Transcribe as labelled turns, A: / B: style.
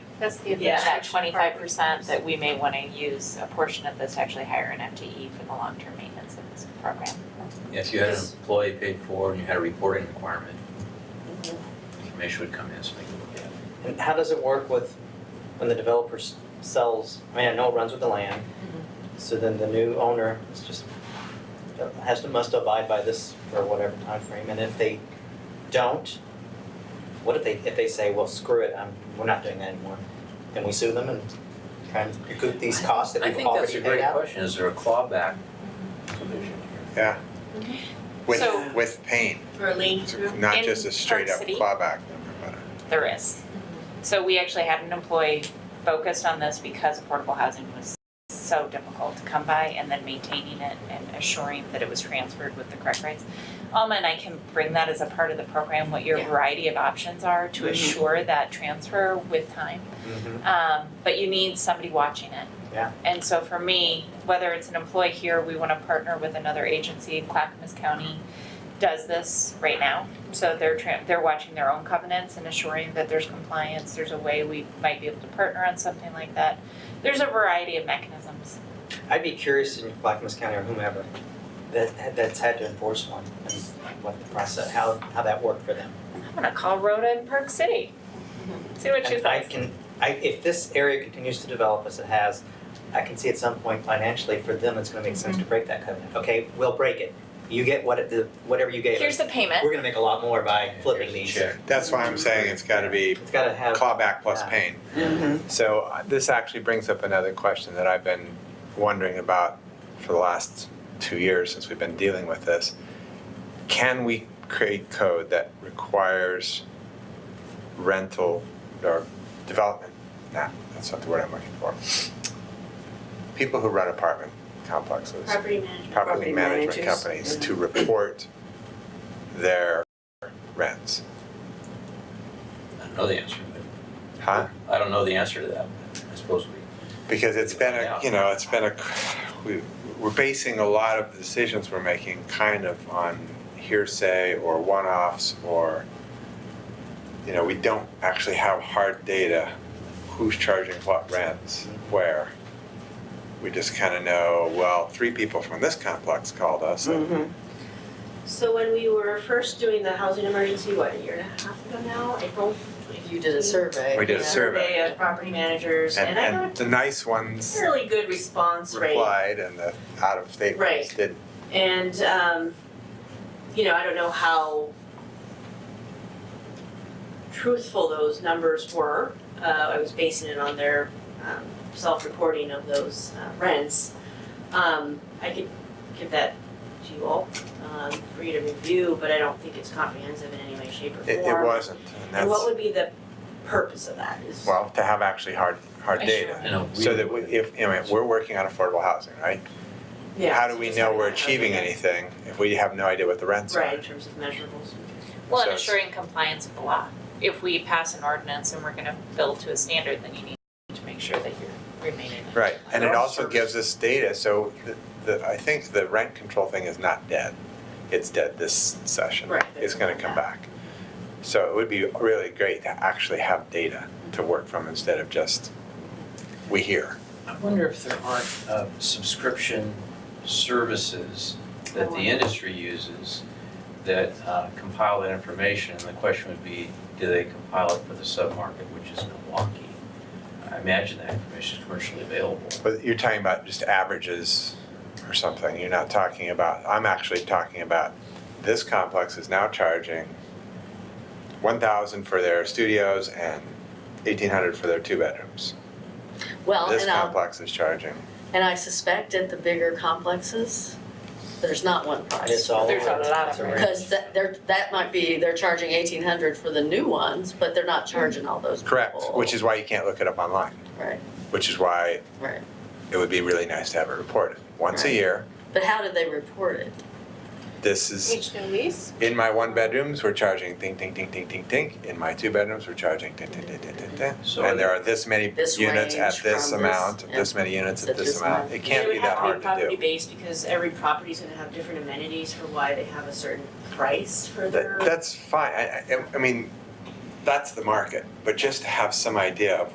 A: That's the
B: Yeah, that
A: administration
B: twenty-five
A: part.
B: percent that we may wanna use a portion of this, to actually hire an FTE E for the long-term maintenance of this program.
C: If you had an
A: Just-
C: employee paid for and you had a reporting requirement, information would come in so they could look at it.
D: And how does it work with when the developer s- sells, I mean, I know it runs with the land, so then the new owner is just, has to, must abide by this for whatever time frame. and if they don't, what if they, if they say, well, screw it, I'm, we're not doing that anymore, then we sue them and try and recoup these costs that
C: I
D: we've
C: think that's
D: already
C: a
D: paid
C: great
D: out?
C: question. Is there a clawback provision here?
A: So-
E: with, with pain,
A: For a lien to.
E: not
B: In
E: just a straight up
B: Park City?
E: clawback number, but uh, a-
B: There is.
A: Mm-hmm.
B: So we actually had an employee focused on this because affordable housing was so difficult to come by and then maintaining it and assuring that it was transferred with the correct rights. Alma and I can bring that as a part of the program, what your
A: Yeah. Mm-hmm.
B: variety of options are to
D: Mhm.
B: assure that transfer with time.
D: Mhm.
B: Um, but you need somebody watching it.
D: Yeah.
B: And so for me, whether it's an employee here, we wanna partner with another agency, Clackamas County does this right now. So they're tran they're watching their own covenants and assuring that there's compliance, there's a way we might be able to partner on something like that. There's a variety of mechanisms.
D: I'd be curious in Clackamas County or whomever that that's had to enforce one and what the process, how how that worked for them.
B: I'm gonna call Rhoda in Park City. See what she
D: And I
B: says.
D: can, I if this area continues to develop as it has, I can see at some point financially for them, it's gonna make
B: Mm-hmm.
D: sense to break that covenant. Okay, we'll break it. You get what it, the- whatever you gave
B: Here's
D: us.
B: the payment.
D: We're gonna make a lot more by flipping
C: Here's
D: these.
C: the check.
E: that's why I'm saying it's gotta be
D: It's gotta have.
E: clawback plus
D: Yeah.
E: pain.
D: Mhm.
F: So uh, this actually brings up another question that I've been wondering about for the last two years since we've been dealing with this. Can we create code that requires rental or development? Nah, that's not the word I'm looking for. People who run apartment complexes,
A: Property management.
F: property management
G: managers.
F: companies, to report their rents.
C: I don't know the answer,
F: Huh?
C: but I don't know the answer to that, but I suppose we.
F: because it's been
C: Yeah.
F: a, you know, it's been a, we, we're basing a lot of the decisions we're making kind of on hearsay or one-offs or, you know, we don't actually have hard data, who's charging what rents, where. We just kind of know, well, three people from this complex called us and
B: Mm-hmm.
G: So when we were first doing the housing emergency, what, a year and a half ago now, April?
A: You did a survey.
F: we did a
G: yeah,
F: survey.
G: Survey of property managers,
F: And,
G: Mm-hmm. and I got
F: and the nice
G: a
F: ones
G: fairly good response rate.
F: replied and the out-of-state ones
G: Right.
F: didn't.
G: And, um, you know, I don't know how truthful those numbers were. Uh, I was basing it on their, um, self-reporting of those uh, rents. Um, I could give that to you all, um, for you to review, but I don't think it's comprehensive in any way, shape, or form.
F: It, it wasn't, and
G: And what
F: that's,
G: would be the purpose of that is?
F: well, to have actually hard, hard
B: Sure.
F: data.
C: You know, we-
F: So that we- if, I mean, we're working on affordable housing, right?
G: Yeah,
F: How do
G: so
F: we
G: just
F: know
G: having
F: we're
G: that
F: achieving
G: measurable-
F: anything if we have no idea what the rents are?
G: Right, in terms of measurables.
B: Well, and
F: So it's-
B: assuring compliance with the law. If we pass an ordinance and we're gonna build to a standard, then you need to make sure that you're remaining. in
F: Right, and it
G: Well,
F: also
G: service.
F: gives us data, so the- the, I think the rent control thing is not dead. It's dead this session.
G: Right,
F: It's
G: they're
F: gonna
G: coming
F: come back. So it would be really great to actually have data to work from instead of just, we hear.
C: I wonder if there aren't uh, subscription services that the industry uses that uh, compile that information, and the question would be, do they compile it for the submarket, which is Milwaukee? I imagine that information is commercially available.
F: But you're talking about just averages or something, you're not talking about, I'm actually talking about, this complex is now charging one thousand for their studios and eighteen hundred for their two bedrooms.
A: Well,
F: This
A: and um,
F: complex is charging,
A: and I suspect at the bigger complexes, there's not one price.
D: It's all.
B: There's a
D: over.
B: lot
D: It's
B: of
D: over.
A: Cause that, they're, that might be, they're charging eighteen hundred for the new ones, but they're not charging all those people.
F: Mm. correct, which is why you can't look it up online,
A: Right,
F: which is why
A: right.
F: it would be really nice to have it reported. Once a
A: Right.
F: year,
A: But how did they report it?
F: this is,
A: new lease?
F: in my one bedrooms, we're charging ding, ding, ding, ding, ding, ding, in my two bedrooms, we're charging ding, ding, ding, ding, ding, ding.
C: So
F: And there are this many
A: This
F: units
A: range
F: at this
A: from this-
F: amount,
A: yeah.
F: this many units
A: So
F: at this
A: this
F: amount,
A: amount.
F: it can't be that hard
G: It would have to be
F: to do.
G: property-based because every property's gonna have different amenities for why they have a certain price for their.
F: That, that's fine, I, I, I mean, that's the market, but just to have some idea of